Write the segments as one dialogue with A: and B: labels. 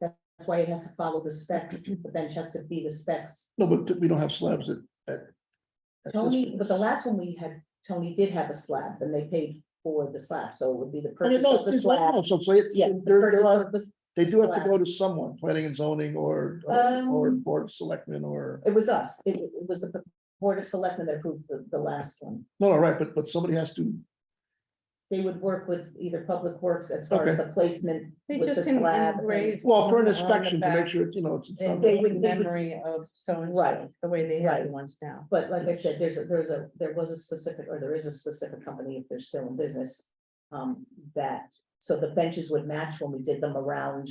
A: that's why it has to follow the specs, but then it has to be the specs.
B: No, but we don't have slabs at, at. at this
A: Tony,
B: point.
A: but the last one we had, Tony did have a slab and they paid for the slab, so it would be the
B: I mean,
A: purchase
B: no,
A: of the
B: there's no- no,
A: slab.
B: so, so it-
A: Yeah. the
B: they're,
A: purchase
B: they're, on-
A: of the-
B: they do have to
A: slab.
B: go to someone, planning and zoning or, or- or
A: Um,
B: board of selectmen or,
A: It was us. It it was the Board of Selectmen that approved the, the last one.
B: no, all right, but, but somebody has to,
A: They would work with either Public Works as far as
B: Okay.
A: the placement
C: They
A: with the
C: just en-
A: slab.
C: engrave.
B: well, for
C: on
B: an
C: the
B: inspection to make
C: back
B: sure, it's, you know, it's. it's
A: They-
B: not-
A: they would-
C: the Memory of so and
A: Right.
C: so, the way they have
A: Right.
C: the ones now.
A: But like I said, there's a, there's a, there was a specific, or there is a specific company, if they're still in business. Um, that, so the benches would match when we did them around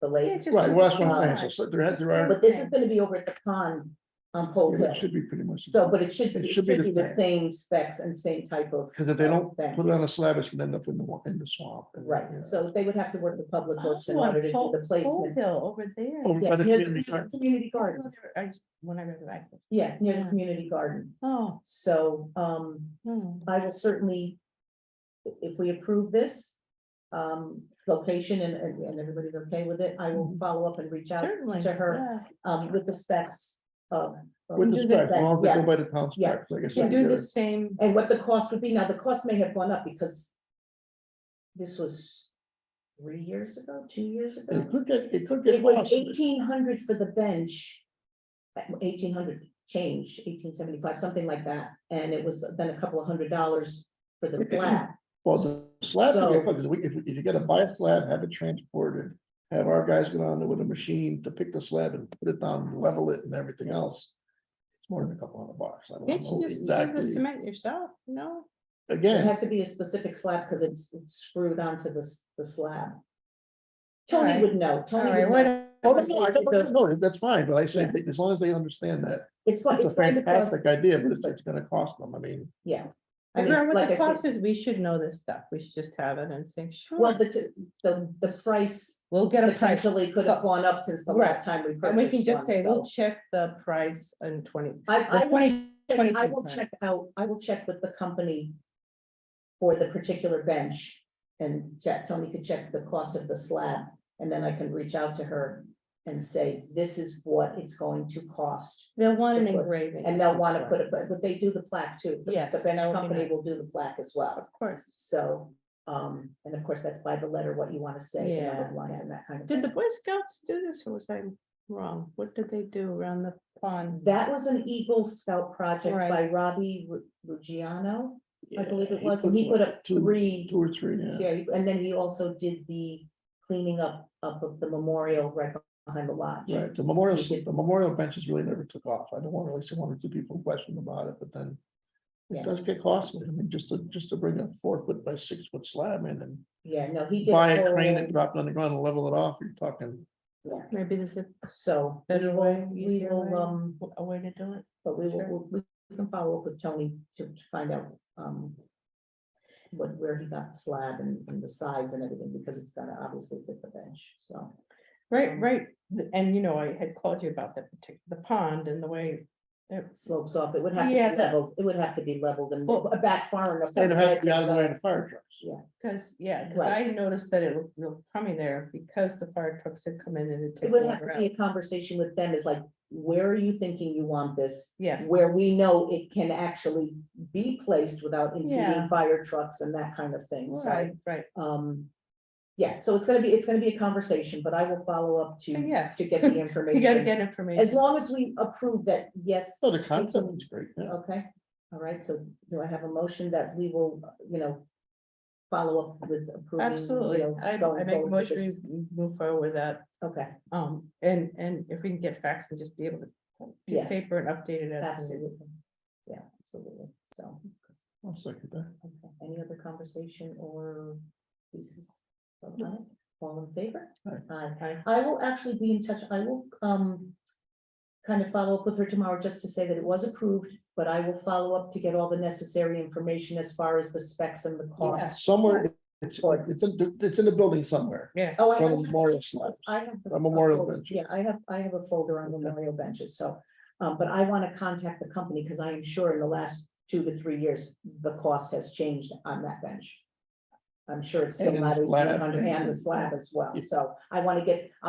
A: the
C: Yeah,
A: lake.
C: just
B: Right, well, that's
C: on
B: what
C: the
B: I'm saying,
C: side.
B: so so there had, there are,
A: But this is gonna be over at the pond on Pole
B: it
A: Hill.
B: should be pretty much.
A: So, but it should, it should be the
B: same.
A: same specs and same type of.
B: Cause if they don't
A: thing.
B: put it on a slab, it's gonna end up in the, wa- in the swamp. and,
A: Right,
B: yeah.
A: so they would have to work with Public Works in
C: Oh, on
A: order to do
C: Pole-
A: the
C: Pole
A: placement.
C: Hill over there.
B: Over by
A: Yes,
B: the
A: near
B: community
A: the
B: garden.
A: community garden,
C: Well, there- I just- When I read it, I.
A: yeah, near the
C: Yeah.
A: community garden.
C: Oh.
A: So, um,
C: hmm.
A: I will certainly, i- if we approve this, um, location and, and, and everybody's okay with it, I
C: Mm-hmm.
A: will follow up and reach out,
C: Certainly.
A: to her,
C: yeah.
A: um, with the specs of. of-
B: With the specs, as long as they
A: Yeah.
B: go by the town
A: Yeah.
B: specs, like I
C: You
B: said. you
C: do the
B: gotta-
C: same,
A: And what the cost would be. Now, the cost may have gone up because this was three years ago, two years ago.
B: It could get, it could
A: It
B: get
A: was
B: lost.
A: eighteen hundred for the bench. Eighteen hundred change, eighteen seventy-five, something like that. And it was then a couple of hundred dollars for the slab.
B: Well, the slab,
A: So-
B: okay, because we- if, if you gotta buy a slab, have it transported, have our guys go down there with a machine to pick the slab and put it down, level it and everything else. It's more than a couple hundred bucks. I don't
C: can't
B: know
C: you just do the
B: exactly.
C: cement yourself, no?
A: It
B: Again,
A: has to be a specific slab because it's it's screwed onto the, s- the slab.
C: Alright.
A: Tony would know,
C: All
A: Tony
C: right,
A: would know.
C: what?
B: oh, no, no, I don't-
A: the-
B: no, that's fine, but I say,
A: Yeah.
B: that as long as they understand that,
A: It's what,
B: it's a
A: it's going to cost,
B: fantastic idea, but it's, it's gonna cost them, I mean.
A: yeah. I mean,
C: Remember what
A: like I
C: the
A: said,
C: cost is, we should know this stuff, we should just have it and say,
A: well,
C: sure,
A: the, t- the, the price
C: we'll get a price.
A: potentially could have gone up since the last time we
C: And we can
A: purchased
C: just
A: one.
C: say, we'll
A: so.
C: check the price in twenty,
A: I, I
C: the
A: will
C: twenty,
A: check- I
C: 22
A: will
C: plan.
A: check out, I will check with the company for the particular bench and check, Tony could check the cost of the slab. And then I can reach out to her and say, this is what it's going to cost.
C: they'll want an
A: Check what-
C: engraving.
A: And they'll want to
C: Sure.
A: put it, but but they do the plaque too. The-
C: Yes,
A: The bench
C: that would be
A: company
C: nice.
A: will do the plaque as well.
C: Of course.
A: So, um, and of course, that's by the letter, what you want to say, the number
C: Yeah,
A: of lines
C: yeah.
A: and that kind of.
C: Did the
A: thing.
C: Boy Scouts do this or was I wrong? What did they do around the pond?
A: That was an Eagle Scout project
C: Right.
A: by Robbie Ru- Ruggiano. I believe
B: yeah,
A: it was, and he
B: like
A: put up
B: two-
A: three,
B: Two or three, yeah.
A: yeah, and then he also did the cleaning up, up of the memorial right behind the lodge.
B: Right, the memorial,
A: We
B: s- the memorial benches really never took off. I don't want to really see one or two people question about it, but then.
A: Yeah.
B: It does get costly. I mean, just to, just to bring a four foot by six foot slab in and
A: Yeah, no, he did.
B: buy
A: whole-
B: a crane and drop it on the ground and level it off, you're talking.
A: yeah,
C: Maybe there's a
A: So we
C: better way,
A: will, we
C: easier
A: will,
C: way,
A: um,
C: a way to do it.
A: but we
C: Sure.
A: will, we we can follow up with Tony to to find out, um, what, where he got the slab and, and the size and everything, because it's gonna obviously fit the bench, so.
C: Right,
A: Um,
C: right. th- And you know, I had called you about that particular, the pond and the way. it-
A: Slopes off, it would have to
C: Yeah,
A: be
C: but-
A: leveled, it would have to be leveled and
C: Well-
A: back far enough.
B: And it has to be
A: that
B: out of the way of the fire trucks.
C: Cause yeah, cause I
A: Right.
C: noticed that it looked real crummy there because the fire trucks had come in and had
A: It
C: taken
A: would
C: it
A: have to be
C: around.
A: a conversation with them, is like, where are you thinking you want this?
C: Yes,
A: Where we know it can actually be placed without impeding
C: Yeah.
A: fire trucks and that kind of thing, so,
C: right, right.
A: um. Yeah, so it's gonna be, it's gonna be a conversation, but I will follow up
C: So
A: to,
C: Uh, yes,
A: to get the
C: you gotta
A: information.
C: get
A: As
C: information.
A: long as we approve that, yes,
B: So the concept is great. yeah.
A: okay, all right, so do I have a motion that we will, you know. Follow up with approving. you
C: Absolutely.
A: know,
C: I, I
A: going
C: make a
A: forward with
C: motion,
A: this?
C: we m- move forward with that.
A: Okay,
C: Um, and, and if we can get facts and just be able to uh, piece
A: Yeah.
C: of paper and update it. as we-
A: absolutely, yeah, absolutely, so.
B: I'll second that.
A: Okay, any other conversation or pieces? of that? All in favor?
B: Aye.
A: Aye.
C: Aye.
A: I will actually be in touch, I will, um, kind of follow up with her tomorrow just to say that it was approved, but I will follow up to get all the necessary information as far as the specs and the cost.
B: Somewhere, it's, it's in, it's in the building somewhere.
C: Yeah,
A: Oh, I
B: From the
A: have,
B: memorial slabs.
A: I have. the-
B: a memorial
A: folder.
B: bench.
A: Yeah, I have, I have a folder on memorial benches, so, um, but I want to contact the company because I am sure in the last two to three years, the cost has changed on that bench. I'm sure it's still
B: And
A: not,
B: slab.
A: even under- and the slab as well,
B: Yeah.
A: so I want to get,